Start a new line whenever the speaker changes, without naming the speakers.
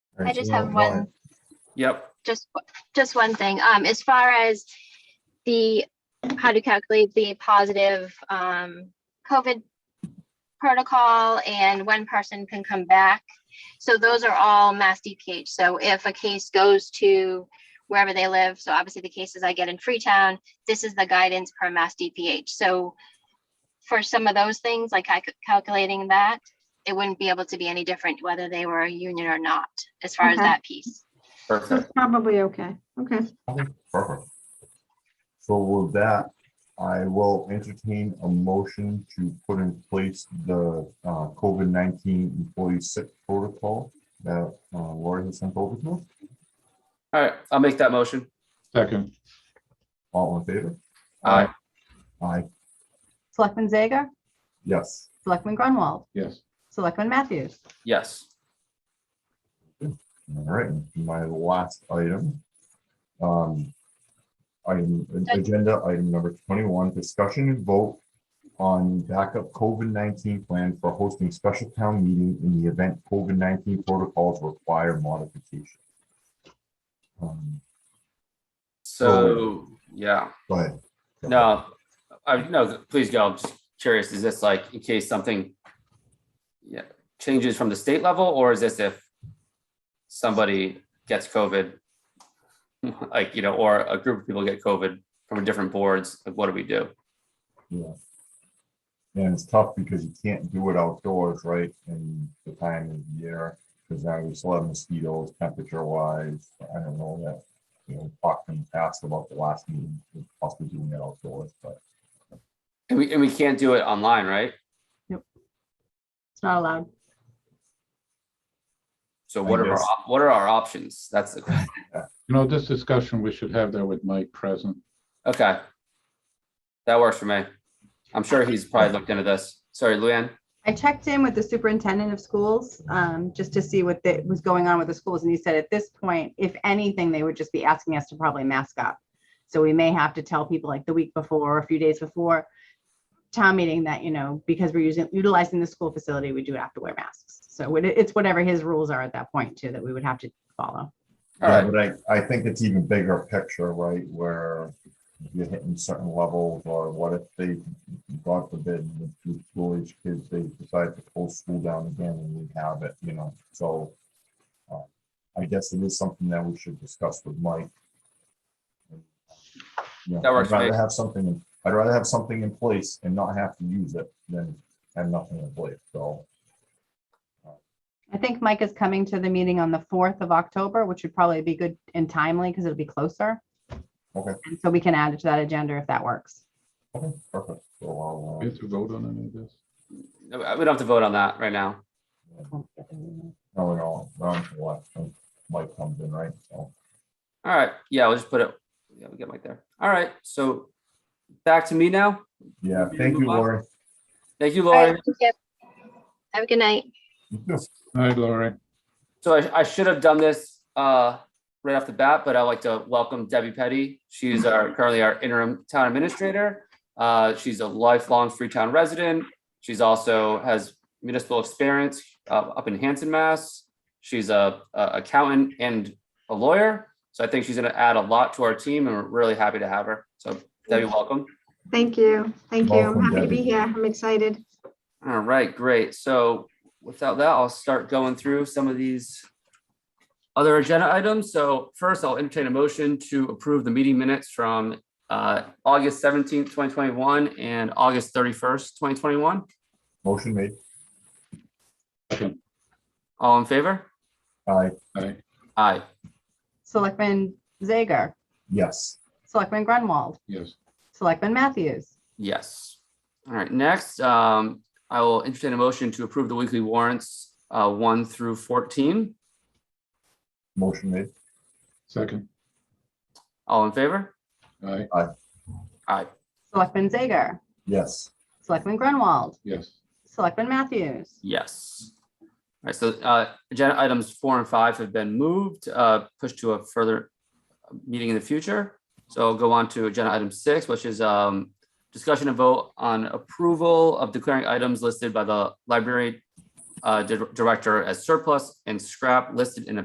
I just have one,
Yep,
just, just one thing. Um, as far as the, how to calculate the positive, um, COVID protocol and when person can come back. So those are all mass DPH. So if a case goes to wherever they live, so obviously the cases I get in Freetown, this is the guidance per mass DPH. So for some of those things, like I could- calculating that, it wouldn't be able to be any different whether they were a union or not, as far as
Okay.
that piece.
So
perfect.
it's probably okay. Okay.
Perfect. So with that, I will entertain a motion to put in place the uh, COVID-19 employee sick protocol that uh, Lori has sent over to us.
All right, I'll make that motion.
Second,
All in favor?
Aye.
Aye,
Selectman Zager?
yes.
Selectman Grunwald?
yes.
Selectman Matthews?
Yes,
All right, my last item. Um, Item, agenda item number twenty-one, discussion and vote on backup COVID-19 plan for hosting special town meeting in the event COVID-19 protocols require modification. Um,
so, yeah,
Go ahead.
no, I, no, please go. I'm just curious, is this like in case something yeah, changes from the state level, or is this if somebody gets COVID? Like, you know, or a group of people get COVID from different boards, like what do we do?
Yeah. And it's tough because you can't do it outdoors, right, in the time of year, because now we still have mosquitoes temperature wise, I don't know that. You know, talked in the past about the last meeting, possibly doing it outdoors, but
And we, and we can't do it online, right?
It's not allowed.
So
I
what are our,
guess.
op- what are our options? That's the question.
You know, this discussion, we should have that with Mike present.
Okay. That works for me. I'm sure he's probably looked into this. Sorry, Luann.
I checked in with the superintendent of schools, um, just to see what the- was going on with the schools, and he said at this point, if anything, they would just be asking us to probably mask up. So we may have to tell people like the week before or a few days before town meeting that, you know, because we're using, utilizing the school facility, we do have to wear masks. So it- it's whatever his rules are at that point too, that we would have to follow.
All
Yeah,
right.
But I, I think it's even bigger picture, right, where you're hitting certain levels, or what if they, God forbid, with the school age kids, they decide to pull school down again and we have it, you know, so. uh, I guess it is something that we should discuss with Mike. You know,
That works for
I'd rather
me.
have something, I'd rather have something in place and not have to use it than have nothing in place, so.
I think Mike is coming to the meeting on the fourth of October, which would probably be good and timely because it'll be closer.
Okay.
And So we can add it to that agenda if that works.
okay, perfect. So I'll,
We
uh,
have to vote on any of this?
No, We don't have to vote on that right now.
No, no, wrong for what? Mike comes in, right? So,
All right. Yeah, we'll just put it. Yeah, we'll get Mike there. All right. So back to me now.
yeah, thank you, Lori.
Thank you,
All right,
Lauren.
thank you. Have a good night.
All right, Lori.
So I, I should have done this uh, right off the bat, but I'd like to welcome Debbie Petty. She's our, currently our interim town administrator. Uh, She's a lifelong Freetown resident. She's also has municipal experience uh, up in Hanson, Mass. She's a a accountant and a lawyer. So I think she's going to add a lot to our team and we're really happy to have her. So Debbie, welcome.
Thank you. Thank you. I'm
Welcome,
happy to be
Debbie.
here. I'm excited.
All right, great. So without that, I'll start going through some of these other agenda items. So first, I'll entertain a motion to approve the meeting minutes from uh, August seventeenth, twenty twenty-one and August thirty-first, twenty twenty-one.
Motion made.
Second.
All in favor?
Aye,
All right,
Aye.
Selectman Zager,
yes.
Selectman Grunwald,
yes.
Selectman Matthews,
Yes. All right, next, um, I will entertain a motion to approve the weekly warrants uh, one through fourteen.
Motion made.
Second,
All in favor?
all right,
Aye.
Selectman Zager,
Yes.
Selectman Grunwald,
yes.
Selectman Matthews,
Yes. All right, so uh, agenda items four and five have been moved, uh, pushed to a further meeting in the future. So I'll go on to agenda item six, which is um, discussion and vote on approval of declaring items listed by the library uh, di- director as surplus and scrap listed in a